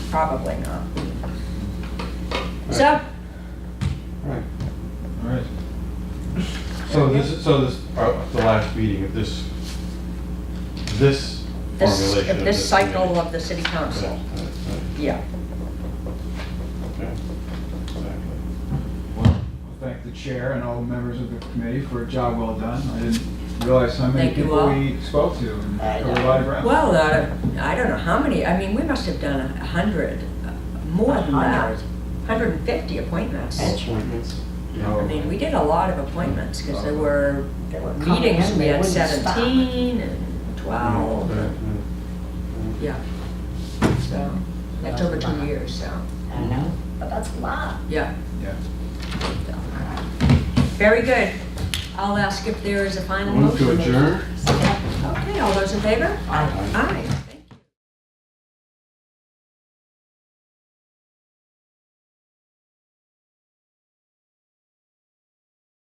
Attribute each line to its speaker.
Speaker 1: Probably not. So,
Speaker 2: Right.
Speaker 3: Alright. So this, is so this, uh, the last meeting of this, this
Speaker 1: this,
Speaker 3: formulation of this.
Speaker 1: this cycle
Speaker 3: committee.
Speaker 1: of the city
Speaker 3: Yeah,
Speaker 1: council,
Speaker 3: right, right,
Speaker 1: yeah.
Speaker 3: okay, exactly.
Speaker 4: Well, I thank the chair and all the members of the committee for a job well done. I didn't realize how many
Speaker 1: Thank you
Speaker 4: people
Speaker 1: all.
Speaker 4: we spoke to and
Speaker 1: I
Speaker 4: covered a
Speaker 1: know.
Speaker 4: lot of ground.
Speaker 5: Well, uh,
Speaker 1: I don't know how many, I mean, we must have done a hundred, uh, more than that. Hundred and fifty appointments.
Speaker 2: All appointments.
Speaker 1: I mean, we did a lot of appointments, because
Speaker 3: Oh.
Speaker 1: there were
Speaker 2: They were coming in,
Speaker 1: meetings, we
Speaker 2: they
Speaker 1: had
Speaker 2: wouldn't stop.
Speaker 1: seventeen and twelve,
Speaker 3: Right,
Speaker 1: and-
Speaker 3: right.
Speaker 1: yeah. So, that's over two years, so,
Speaker 2: I know, but that's a lot.
Speaker 1: yeah.
Speaker 4: Yeah.
Speaker 1: Very good. I'll ask if there is a final
Speaker 3: Move
Speaker 1: motion.
Speaker 3: to adjourn?
Speaker 1: Okay, all those in favor?
Speaker 2: I-
Speaker 1: Aye.